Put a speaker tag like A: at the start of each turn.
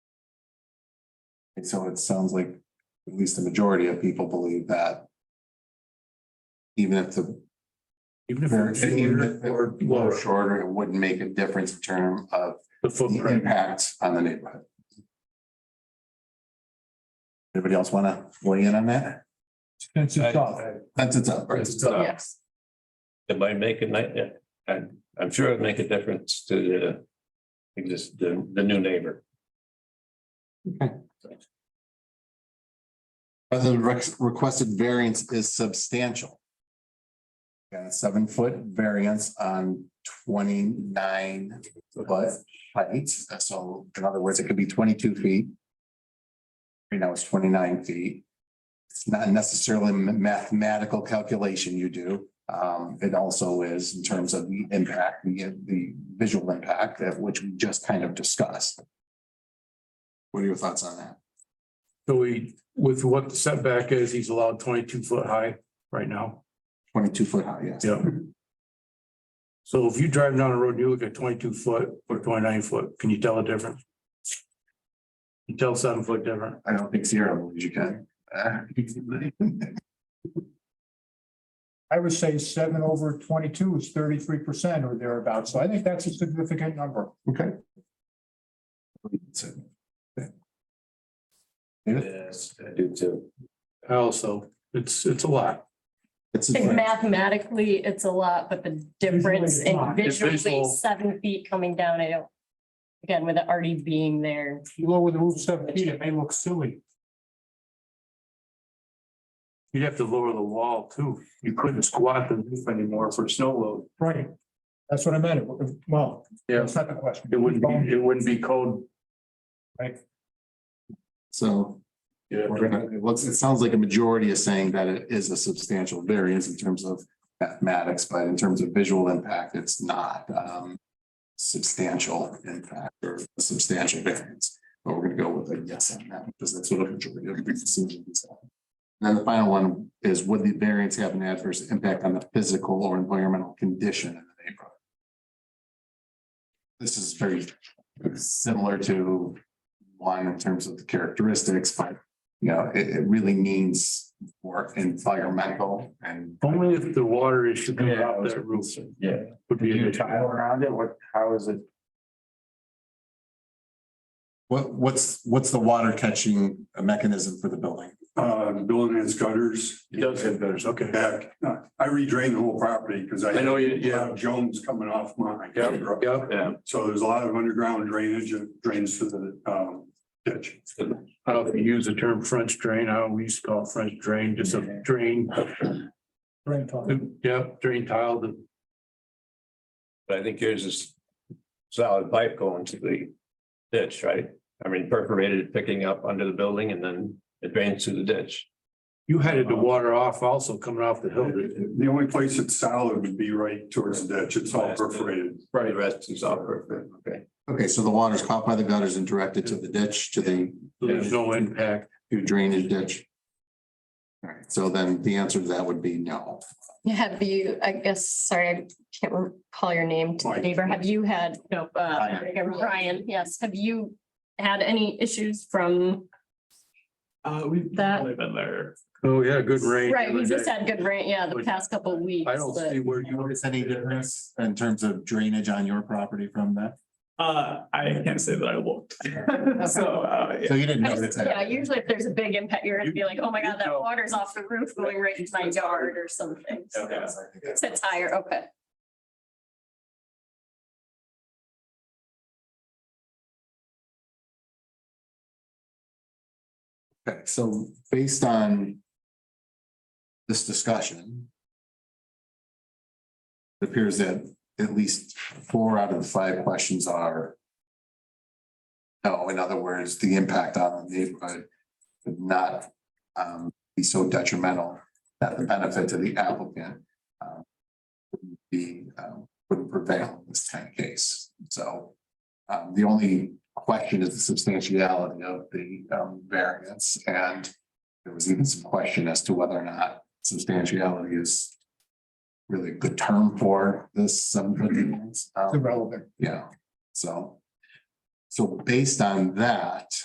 A: And so it sounds like at least the majority of people believe that. Even if the,
B: Even if it's
A: even if
B: shorter
A: it
B: or
A: were
B: lower,
A: shorter, it wouldn't make a difference in terms of
B: the
A: the
B: footprint,
A: impact on the neighborhood. Anybody else wanna weigh in on that?
C: That's a thought.
A: That's it's up, right?
B: it's uh,
D: Yes.
E: It might make a night, yeah, I'm, I'm sure it'd make a difference to the. Exist, the, the new neighbor.
A: Whether the rex- requested variance is substantial. Got a seven foot variance on twenty nine foot height, so in other words, it could be twenty two feet. Right now it's twenty nine feet. It's not necessarily a mathematical calculation you do. Um, it also is in terms of the impact, the the visual impact that which we just kind of discussed. What are your thoughts on that?
B: so we, with what the setback is, he's allowed twenty-two foot high right now.
A: Twenty two foot high, yes.
B: Yeah. So if you drive down the road, and you look at twenty-two foot or twenty-nine foot, can you tell a difference? You tell seven foot different.
A: I don't think Sierra believes you can. Uh,
C: I would say seven over twenty-two is thirty-three percent or thereabouts. So I think that's a significant number.
A: Okay. David?
E: Yes, I do too.
B: Also, it's, it's a lot.
A: It's
D: I
A: a-
D: think mathematically, it's a lot, but the difference
C: Visually, it's
D: in
C: not.
B: It's
D: visually
B: visual.
D: seven feet coming down, I don't. Again, with it already being there,
C: If you lower the roof seven feet, it may look silly.
B: You'd have to lower the wall too. You couldn't squat the roof anymore for snow load.
C: Right. That's what I meant. Well, that's not the question.
B: It wouldn't be, it wouldn't be code.
A: So
B: Yeah.
A: we're gonna- it looks, it sounds like a majority is saying that it is a substantial variance in terms of mathematics, but in terms of visual impact, it's not um substantial impact or substantial variance. But we're gonna go with a yes on that because that's what a majority of the decision is. on. And Then the final one is would the variance have an adverse impact on the physical or environmental condition in the neighborhood? This is very similar to one in terms of the characteristics, but you know, it it really means more environmental and.
B: Only if the water issue comes
E: Yeah, I
B: out
E: was-
B: that roof
E: Yeah.
B: would be. an issue.
E: around it, what, how is it?
A: What, what's, what's the water catching mechanism for the building?
F: Uh, building its gutters.
B: It does have gutters, okay.
F: Back, uh, I redrained the whole property because I.
B: I know you-
F: had a lot of Jones coming off mine.
B: Yeah,
E: Yeah,
F: So there's a lot of underground drainage and drains to the, um, ditch.
B: I don't know if you use the term French drain, I always call it French drain, just a drain,
C: Brain talk.
B: yeah, drain tile, the
E: but I think yours is solid pipe going to the ditch, right? I mean perforated, picking up under the building and then it drains through the ditch.
B: You headed the water off also coming off the hill.
F: The only place it's solid would be right towards the ditch. It's all perforated.
E: Right. The rest is all perfect, okay.
A: Okay, so the water's caught by the gutters and directed to the ditch, to the
B: There's no impact.
A: to drainage ditch. All right, so then the answer to that would be no.
D: have you, I guess, sorry, I can't recall your name to the
F: Mike.
D: neighbor, have you had, no, uh,
A: Brian.
D: Brian, yes, have you? Had any issues from
G: Uh, we've
D: That-
G: definitely been there.
B: Oh, yeah, good rain.
D: Right, we just had good rain, yeah, the
B: But
D: past couple of weeks,
B: I don't
D: but
B: see where
A: You
B: you,
A: notice any difference in terms of drainage on your property from that?
G: Uh, I can't say that I looked. So, uh, yeah.
A: So you didn't
D: I just-
A: notice that?
D: yeah, usually if there's a big impact, you're gonna be like, oh my god, that water's off the roof going right into my yard or something.
B: Oh,
D: So
G: Okay.
A: Yes, I think that's-
D: It's a tire, okay.
A: Okay, so based on this discussion, it appears that at least four out of the five questions are no, Oh, in other words, the impact on the neighborhood would not um, be so detrimental that the benefit to the applicant um, wouldn't be, um, would prevail in this kind of case. So um, the only question is the substantiality of the um variance and. There was even some question as to whether or not substantiality is. Really a good term for this subdivision.
C: It's
A: Um,
C: irrelevant.
A: Yeah, so. So based on that.